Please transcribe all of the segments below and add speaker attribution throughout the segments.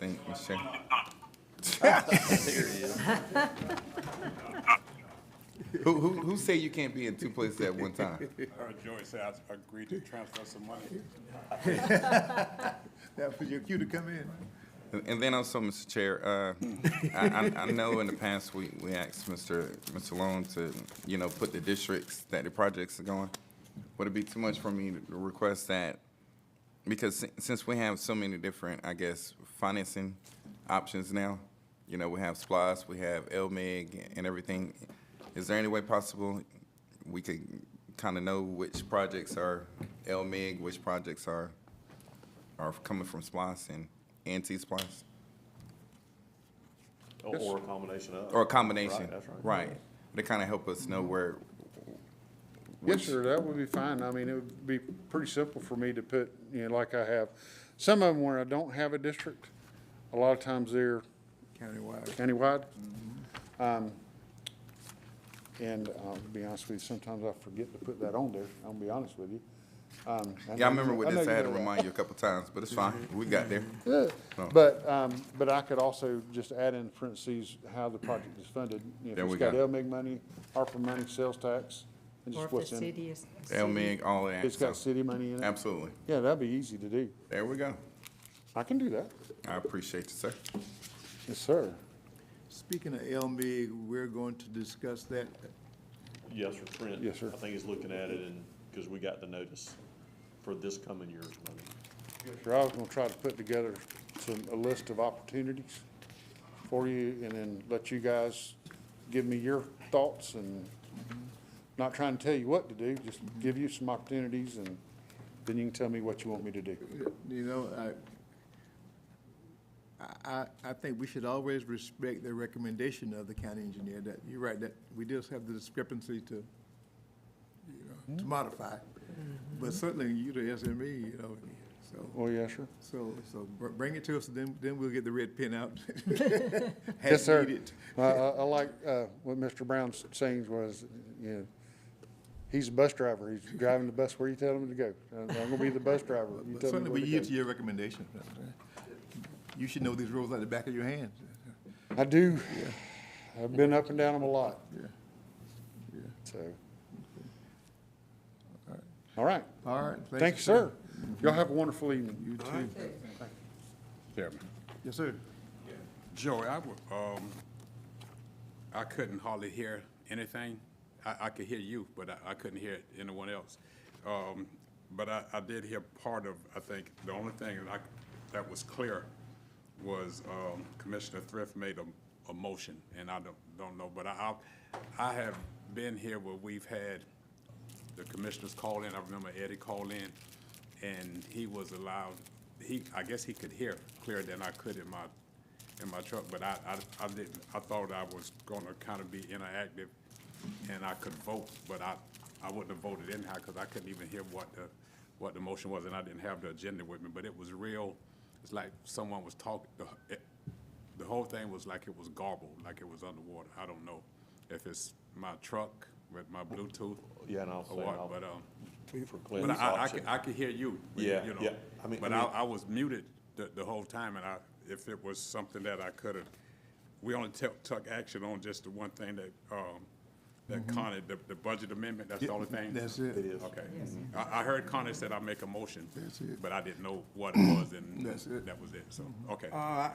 Speaker 1: think, Mr. Chairman. Who, who, who say you can't be in two places at one time?
Speaker 2: Heard Joey say I agreed to transfer some money.
Speaker 3: That was your cue to come in.
Speaker 1: And and then also, Mr. Chair, uh, I, I- I know in the past, we, we asked Mr. Mr. Long to, you know, put the districts that the projects are going. Would it be too much for me to request that? Because si- since we have so many different, I guess, financing options now, you know, we have SPOS, we have LMIG and everything. Is there any way possible we could kind of know which projects are LMIG, which projects are are coming from SPOS and anti-SPOS,
Speaker 4: Or- Or a combination of.
Speaker 1: or a combination.
Speaker 4: Right, that's right.
Speaker 1: Right. To kind of help us know where,
Speaker 5: Yes, sir, that would be fine. I mean, it would be pretty simple for me to put, you know, like I have. Some of them where I don't have a district, a lot of times they're
Speaker 3: Countywide.
Speaker 5: countywide.
Speaker 1: Mm-hmm.
Speaker 5: Um, And uh, to be honest with you, sometimes I forget to put that on there, I'll be honest with you.
Speaker 1: yeah,
Speaker 5: Um,
Speaker 1: I
Speaker 5: know you
Speaker 1: remember
Speaker 5: know-
Speaker 1: with
Speaker 5: know
Speaker 1: this, I
Speaker 5: you
Speaker 1: had
Speaker 5: know
Speaker 1: to
Speaker 5: that.
Speaker 1: remind you a couple times, but it's fine. We got there.
Speaker 5: Yeah,
Speaker 1: Oh.
Speaker 5: But, um, but I could also just add in parentheses how the project is funded. You know,
Speaker 1: There we
Speaker 5: If
Speaker 1: go.
Speaker 5: it's got LMIG money, ARPA money, sales tax, and
Speaker 6: Or
Speaker 5: just
Speaker 6: if
Speaker 5: what's
Speaker 6: the
Speaker 5: in it.
Speaker 6: city is.
Speaker 1: LMIG, all of
Speaker 5: It's
Speaker 1: that.
Speaker 5: got
Speaker 1: so-
Speaker 5: city money in it.
Speaker 1: Absolutely.
Speaker 5: Yeah, that'd be easy to do.
Speaker 1: There we go.
Speaker 5: I can do that.
Speaker 1: I appreciate you, sir.
Speaker 5: Yes, sir.
Speaker 3: Speaking of LMB, we're going to discuss that.
Speaker 4: Yes, sir, Trent.
Speaker 5: Yes, sir.
Speaker 4: I think he's looking at it and, because we got the notice for this coming year's money.
Speaker 5: Sure, I was gonna try to put together some, a list of opportunities for you and then let you guys give me your thoughts and not trying to tell you what to do, just give you some opportunities and then you can tell me what you want me to do.
Speaker 3: You know, I, I, I- I think we should always respect the recommendation of the county engineer that, you're right, that we just have the discrepancy to, you know, to modify. But certainly you the SME, you know, so,
Speaker 5: Oh, yeah, sure.
Speaker 3: so, so br- bring it to us, then, then we'll get the red pin out.
Speaker 5: Yes,
Speaker 3: As
Speaker 5: sir.
Speaker 3: needed.
Speaker 5: I, I I like, uh, what Mr. Brown's saying was, you know, he's a bus driver. He's driving the bus where you tell him to go. I'm I'm gonna be the bus driver. You
Speaker 3: But
Speaker 5: tell me
Speaker 3: Certainly, we
Speaker 5: where to
Speaker 3: yield
Speaker 5: go.
Speaker 3: to your recommendation. You should know these rules like the back of your hand.
Speaker 5: I do. I've been up and down them a lot.
Speaker 3: Yeah. Yeah.
Speaker 5: So. All right.
Speaker 3: All right.
Speaker 5: Thank you, sir. Y'all have a wonderful evening.
Speaker 3: You too.
Speaker 2: Chairman.
Speaker 3: Yes, sir.
Speaker 2: Joey, I, wa- um, I couldn't hardly hear anything. I, I could hear you, but I, I couldn't hear anyone else. Um, but I, I did hear part of, I think, the only thing that I, that was clear was, um, Commissioner Thrift made a, a motion, and I don't, don't know, but I, I, I have been here where we've had the commissioners call in, I remember Eddie called in, and he was allowed, he, I guess he could hear clearer than I could in my, in my truck, but I, I, I didn't, I thought I was gonna kind of be interactive, and I could vote, but I, I wouldn't have voted anyhow, because I couldn't even hear what the, what the motion was, and I didn't have the agenda with me, but it was real, it's like someone was talking, the, it- the whole thing was like it was garbled, like it was underwater, I don't know if it's my truck with my Bluetooth.
Speaker 4: Yeah, and I'll say,
Speaker 2: or what,
Speaker 4: I'll-
Speaker 2: But, um,
Speaker 4: For
Speaker 2: but
Speaker 4: Clint's
Speaker 2: I, I
Speaker 4: option.
Speaker 2: could, I could hear you. you
Speaker 4: Yeah,
Speaker 2: know,
Speaker 4: yeah. I mean-
Speaker 2: But
Speaker 4: I
Speaker 2: I,
Speaker 4: mean-
Speaker 2: I was muted the, the whole time, and I, if it was something that I could have, we only took, took action on just the one thing that, um, that Connie, the, the budget amendment, that's the only thing?
Speaker 3: That's it.
Speaker 2: Okay. I, I heard Connie said I make a motion.
Speaker 3: That's it.
Speaker 2: But I didn't know what it was, and
Speaker 3: That's it.
Speaker 2: that was it, so, okay.
Speaker 7: Uh, I, I,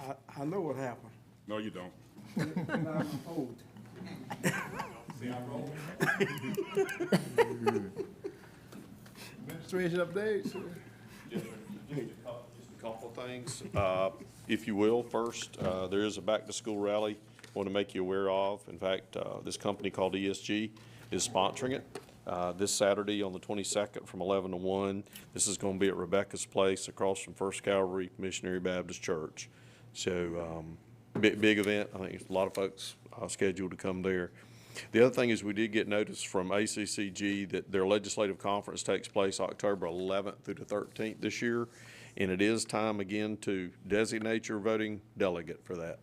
Speaker 7: I- I know what happened.
Speaker 2: No, you don't.
Speaker 7: I'm old.
Speaker 3: Administration updates.
Speaker 4: Just a Couple of things, uh, if you will. First, uh, there is a back-to-school rally I want to make you aware of. In fact, uh, this company called ESG is sponsoring it uh, this Saturday on the 22nd from 11 to 1. This is going to be at Rebecca's Place across from First Calvary Missionary Baptist Church. So um, big, big event. I think there's a lot of folks uh, scheduled to come there. The other thing is we did get notice from ACCG that their legislative conference takes place October 11th through the 13th this year. And it is time again to designate your voting delegate for that.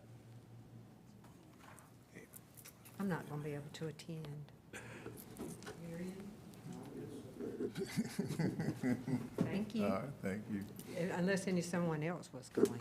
Speaker 6: I'm not going to be able to attend. Thank you,
Speaker 3: All right, thank you.
Speaker 6: unless any someone else was going.